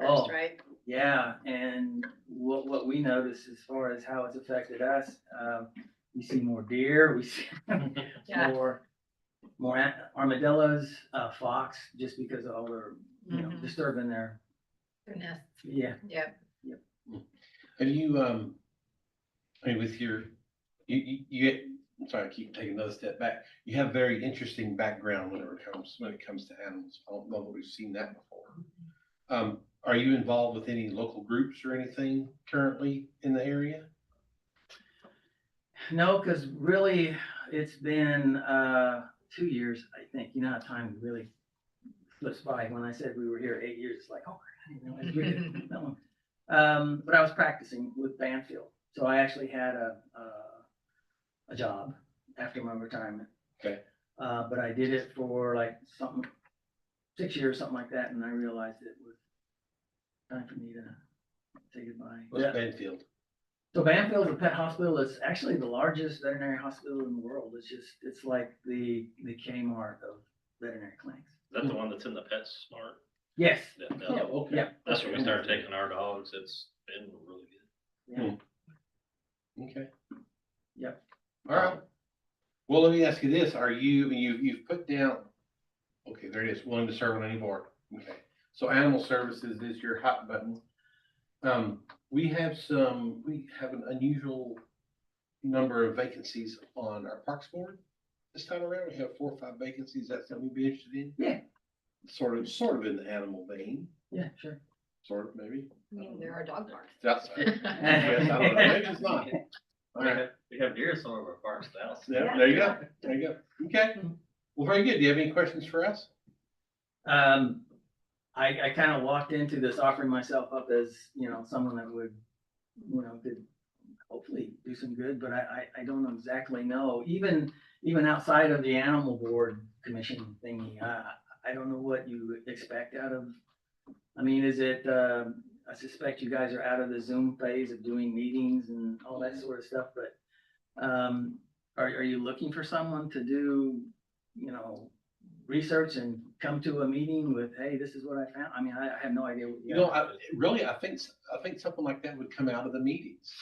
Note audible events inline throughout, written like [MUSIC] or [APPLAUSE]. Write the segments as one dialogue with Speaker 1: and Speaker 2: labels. Speaker 1: Oh.
Speaker 2: first, right?
Speaker 1: Yeah, and what, what we notice as far as how it's affected us, um, we see more deer, we see
Speaker 2: Yeah.
Speaker 1: more, more a- armadillos, uh, fox, just because of all their, you know,
Speaker 2: Mhm.
Speaker 1: disturbing their,
Speaker 2: Goodness,
Speaker 1: yeah.
Speaker 2: Yeah,
Speaker 3: Have you, um, I mean, with your, you, you, you, get- I'm sorry, I keep taking another step back. You have very interesting background whenever it comes, when it comes to animals. I don't know that we've seen that before. Um, are you involved with any local groups or anything currently in the area?
Speaker 1: No, cause really, it's been, uh, two years, I think, you know how time really flips by, when I said we were here eight years, it's like, oh, I didn't realize we did that long. Um, but I was practicing with Banfield, so I actually had a, uh, a job after my retirement.
Speaker 3: Okay.
Speaker 1: Uh, but I did it for like something, six years, something like that, and I realized it was time for me to say goodbye.
Speaker 3: What's
Speaker 1: Yeah.
Speaker 3: Benfield?
Speaker 1: So Banfield's a pet hospital. It's actually the largest veterinary hospital in the world. It's just, it's like the, the Kmart of veterinary clinics.
Speaker 4: That's
Speaker 2: Hmm.
Speaker 4: the one that's in the pet smart.
Speaker 1: Yes,
Speaker 4: that- that-
Speaker 3: Oh, okay.
Speaker 1: Yeah.
Speaker 4: That's where we started taking our dogs. It's been really good.
Speaker 3: Hmm. Okay.
Speaker 1: Yep.
Speaker 3: All right. Well, let me ask you this. Are you, you, you've put down, okay, there it is, willing to serve on any board. Okay. So animal services is your hot button. Um, we have some, we have an unusual number of vacancies on our parks board. This time around, we have four or five vacancies. That's something we'd be interested in.
Speaker 1: Yeah.
Speaker 3: Sort of, sort of in the animal vein,
Speaker 1: yeah, sure.
Speaker 3: sort of maybe.
Speaker 2: I mean, there are dog parks.
Speaker 3: It's outside. Yes, I don't know. Maybe it's not. All
Speaker 4: We
Speaker 3: right.
Speaker 4: have, we have deer in some of our parks now. so-
Speaker 3: Yeah, there you go, there you go. Okay, well, very good. Do you have any questions for us?
Speaker 1: Um, I, I kind of walked into this offering myself up as, you know, someone that would, you know, could hopefully do some good, but I, I, I don't exactly know. Even, even outside of the animal board commission thingy, I, I don't know what you expect out of. I mean, is it, uh, I suspect you guys are out of the Zoom phase of doing meetings and all that sort of stuff, but, um, are, are you looking for someone to do, you know, research and come to a meeting with, hey, this is what I found? I mean, I, I have no idea. what
Speaker 3: You know, I, really, I think, s- I think something like that would come out of the meetings,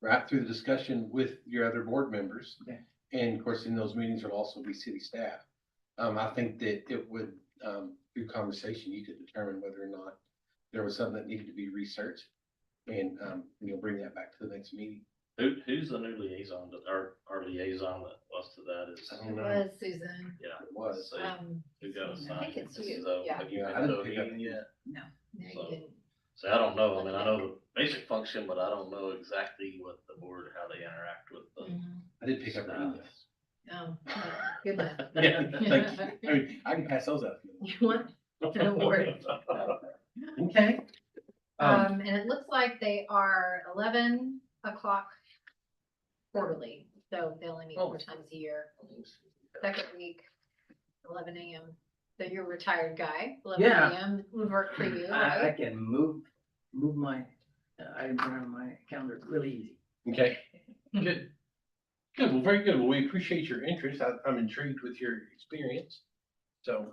Speaker 3: right, through the discussion with your other board members.
Speaker 1: Okay.
Speaker 3: And of course, in those meetings will also be city staff. Um, I think that it would, um, through conversation, you could determine whether or not there was something that needed to be researched. And, um, you'll bring that back to the next meeting.
Speaker 4: Who, who's the new liaison that our, our liaison that was to that is,
Speaker 3: I don't
Speaker 2: It
Speaker 3: know
Speaker 2: was Susan.
Speaker 4: yeah,
Speaker 3: what It was,
Speaker 4: so
Speaker 2: Um,
Speaker 4: who got assigned?
Speaker 2: I think it's
Speaker 4: This is
Speaker 2: you,
Speaker 4: a-
Speaker 2: yeah.
Speaker 4: Have you
Speaker 3: Yeah, I
Speaker 4: been to
Speaker 3: didn't
Speaker 4: a
Speaker 3: pick up
Speaker 4: meeting
Speaker 3: any-
Speaker 4: yet?
Speaker 2: no, you
Speaker 4: So-
Speaker 2: didn't.
Speaker 4: So I don't know. I mean, I know the basic function, but I don't know exactly what the board, how they interact with the.
Speaker 2: Mhm.
Speaker 3: I did pick up your emails.
Speaker 2: Oh, goodness.
Speaker 4: [LAUGHS]
Speaker 3: Yeah,
Speaker 2: [LAUGHS]
Speaker 3: thank you. I mean, I can pass those out.
Speaker 2: You want, an award.
Speaker 3: Okay. Um,
Speaker 2: um, and it looks like they are eleven o'clock quarterly, so they only meet
Speaker 3: Oh.
Speaker 2: four times a year. Second week, eleven AM. So you're a retired guy, eleven
Speaker 1: Yeah.
Speaker 2: AM would work for you,
Speaker 1: I, I
Speaker 2: right?
Speaker 1: can move, move my, I around my calendar really easy.
Speaker 3: Okay.
Speaker 1: Hmm.
Speaker 3: Good. Good, well, very good. Well, we appreciate your interest. I, I'm intrigued with your experience. So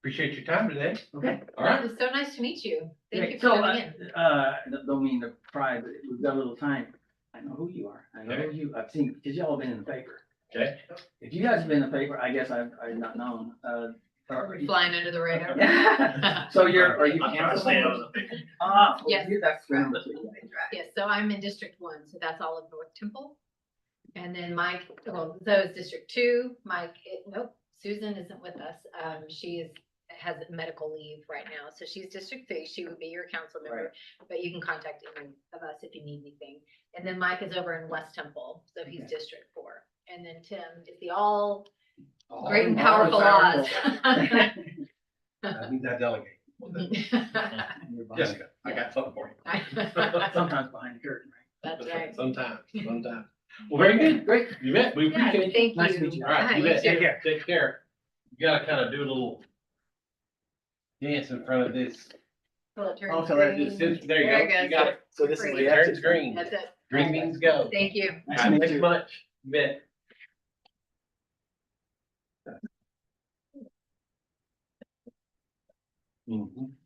Speaker 3: appreciate your time today.
Speaker 1: Okay.
Speaker 3: All
Speaker 2: It
Speaker 3: right.
Speaker 2: was so nice to meet you. Thank
Speaker 1: Okay,
Speaker 2: you
Speaker 1: so
Speaker 2: for
Speaker 1: uh,
Speaker 2: coming in.
Speaker 1: Uh, don't- don't mean to pry, but if we've got a little time. I know who you are. I know who you, I've seen, because y'all have been in the paper.
Speaker 3: Okay.
Speaker 1: If you guys have been in the paper, I guess I've, I've not known, uh. or-
Speaker 2: Flying under the radar.
Speaker 1: Yeah. [LAUGHS] So you're, are you?
Speaker 4: I'm trying to stay out of the picture.
Speaker 1: Ah, well,
Speaker 2: Yes.
Speaker 1: you- that's.
Speaker 2: Yes, so I'm in District One, so that's all of North Temple. And then Mike, well, so is District Two, Mike, it- nope, Susan isn't with us. Um, she is, has medical leave right now, so she's District Three, she would be your council member. But you can contact any of us if you need anything. And then Mike is over in West Temple, so he's
Speaker 1: Okay.
Speaker 2: District Four. And then Tim is the all
Speaker 3: All
Speaker 2: great and
Speaker 3: in
Speaker 2: powerful
Speaker 3: all,
Speaker 2: Oz.
Speaker 3: I need that delegate. Well, that-
Speaker 1: Nearby.
Speaker 3: Jessica, I got something for you. [LAUGHS]
Speaker 1: Sometimes behind the curtain, right?
Speaker 2: [LAUGHS] That's right.
Speaker 1: [LAUGHS]
Speaker 3: Sometimes, sometimes. Well, very good.
Speaker 1: Great.
Speaker 3: You bet. We
Speaker 2: Yeah,
Speaker 3: appreciate it.
Speaker 2: thank you.
Speaker 1: Nice to meet you.
Speaker 3: All right, you
Speaker 2: Hi, you
Speaker 3: bet.
Speaker 2: too.
Speaker 3: Take care. Take care. You gotta kind of do a little dance in front of this.
Speaker 2: Till it turns
Speaker 1: Also, that
Speaker 2: green.
Speaker 3: just- Oh, There you go.
Speaker 2: There it goes.
Speaker 3: You got it.
Speaker 1: So
Speaker 2: this is
Speaker 3: It
Speaker 2: the
Speaker 3: turns green.
Speaker 2: That's it.
Speaker 3: Green means go.
Speaker 2: Thank you.
Speaker 1: Nice to meet
Speaker 3: Thanks
Speaker 1: you.
Speaker 3: much. You bet. Mhm.